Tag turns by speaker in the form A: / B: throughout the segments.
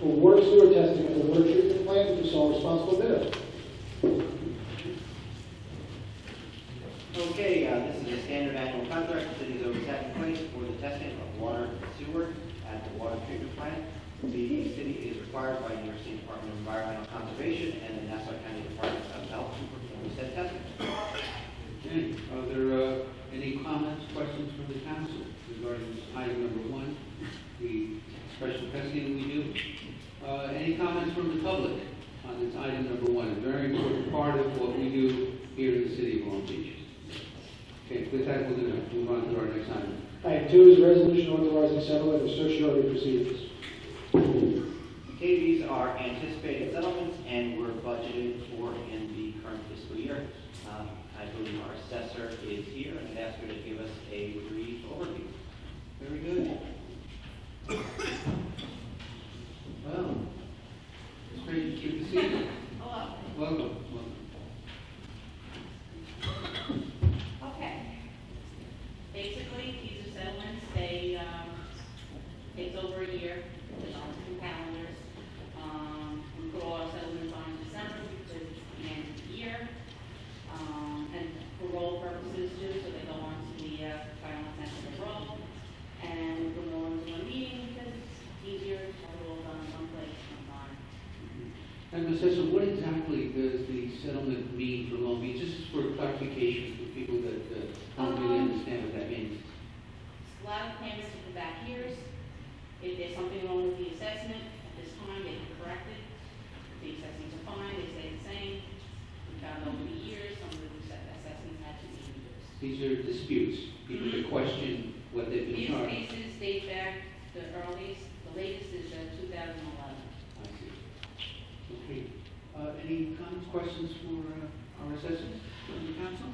A: water sewer testing at the water treatment plant and to sole responsible bidder.
B: Okay, uh, this is a standard annual contract the city is always had in place for the testing of water and sewer at the water treatment plant. The city is required by the New York State Department of Environmental Conservation and the Nassau County Department of Health to perform said testing.
C: Okay, are there uh, any comments, questions from the council regarding this item number one, the special testing we do? Uh, Any comments from the public on this item number one, a very important part of what we do here in the city of Long Beach? Okay, with that, we're going to move on to our next item.
A: Item two is a resolution authorizing settlement of certiorari proceedings.
B: Okay, these are anticipated settlements and were budgeted for in the current fiscal year. Um, I believe our assessor is here and I'd ask her to give us a brief overview.
C: Very good. Well, it's great to good to see you.
D: Hello.
C: Welcome, welcome.
D: Okay. Basically, these are settlements, they, um, it's over a year, it's on two calendars. Um, we put all our settlements on in December because it's the end of the year. Um, and for roll purposes too, so they go on to the, uh, final test of the roll. And we put them all into a meeting because it's easier to have it all done in one place, than on.
C: And Ms. Sessa, what exactly does the settlement mean for Long Beach? Just for clarification for people that uh, don't really
D: Um,
C: understand what that means.
D: A lot of payments for the back years. If there's something wrong with the assessment, at this time, they can correct it. If The assessments are fine, they stay the same. We found over the years, some of the assess- assessments had to be reduced.
C: These are disputes, people that question what they've been
D: These
C: charged.
D: cases date back, the earliest, the latest is uh, 2011.
C: I see. Okay. Uh, Any comments, questions for uh, our assessors from the council?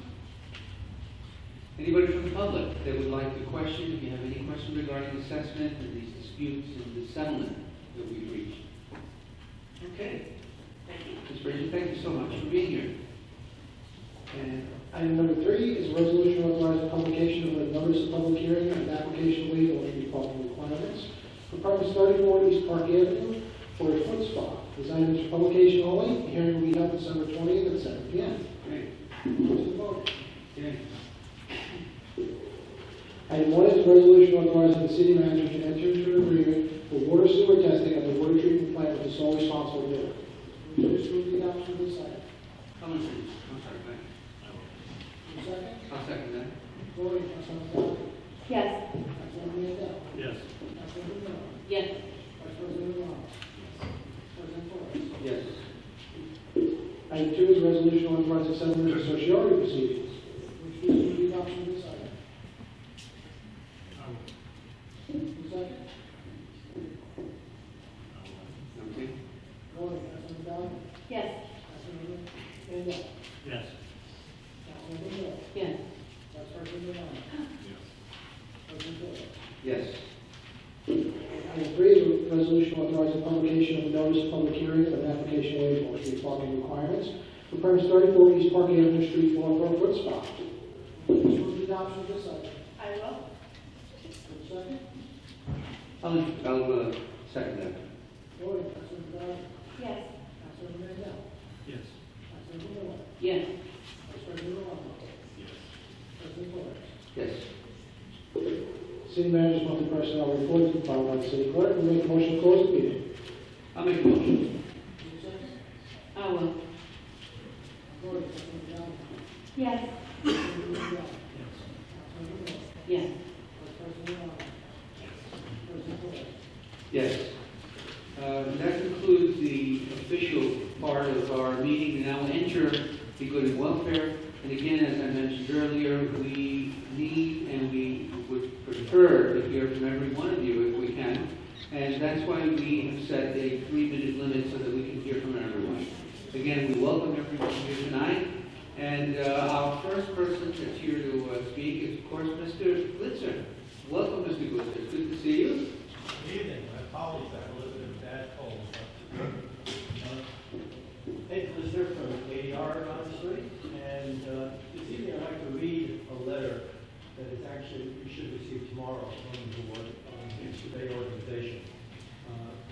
C: Anybody from the public that would like to question, if you have any questions regarding assessment and these disputes and the settlement that we've reached? Okay.
D: Thank you.
C: Ms. Bridget, thank you so much for being here. And
A: Item number three is a resolution authorizing publication of a notice of public hearing and application legal and department requirements for purpose thirty-four East Park Avenue for a foot spa. Designed is for publication only, The hearing will be held December twentieth at seven P M.
C: Great, yeah.
A: Item one is a resolution authorizing the city manager to enter into an agreement for water sewer testing at the water treatment plant with the sole responsible bidder. Just move the adoption of this item.
C: Common sense, I'm sorry, Brian.
A: Second,
C: I'll second that.
A: voting, Councilman Dodd.
D: Yes.
A: Councilman Mandel.
E: Yes.
A: Councilman Brennan.
D: Yes.
A: Vice President Obama. President Torres.
C: Yes.
A: Item two is a resolution authorizing settlement of certiorari proceedings. Which is the adoption of this item. Who's second?
C: Okay.
A: Voting, Councilman Dodd.
D: Yes.
A: Councilman Mandel.
E: Yes.
A: Councilman Brennan.
D: Yes.
A: Vice President Obama. President Torres.
C: Yes.
A: Item three is a resolution authorizing publication of a notice of public hearing for an application waiver for street parking requirements for premise 34 East Park Avenue Street, Marlboro Foot Spa. Move the adoption of this item.
D: I will.
A: Second.
C: I'll, I'll uh, second that.
A: Voting, Councilman Dodd.
D: Yes.
A: Councilman Mandel.
E: Yes.
A: Councilman Brennan.
D: Yes.
A: Vice President Obama.
E: Yes.
A: President Torres.
C: Yes.
A: City manager's monthly personnel report to be filed by the city clerk. We make a motion to close the meeting.
C: I'll make a motion.
D: I will.
A: Voting, Councilman Dodd.
D: Yes.
A: Councilman Mandel.
E: Yes.
A: Councilman Brennan.
D: Yes.
A: Vice President Obama. President Torres.
C: Yes. Uh, That concludes the official part of our meeting. Now we'll enter the good and welfare. And again, as I mentioned earlier, we need and we would prefer to hear from every one of you if we can. And that's why we have set a three-minute limit so that we can hear from everyone. Again, we welcome everyone here tonight. And uh, our first person that's here to uh, speak is, of course, Mr. Glitzer. Welcome, Mr. Glitzer. It's Good to see you.
F: Good evening, I apologize, I live in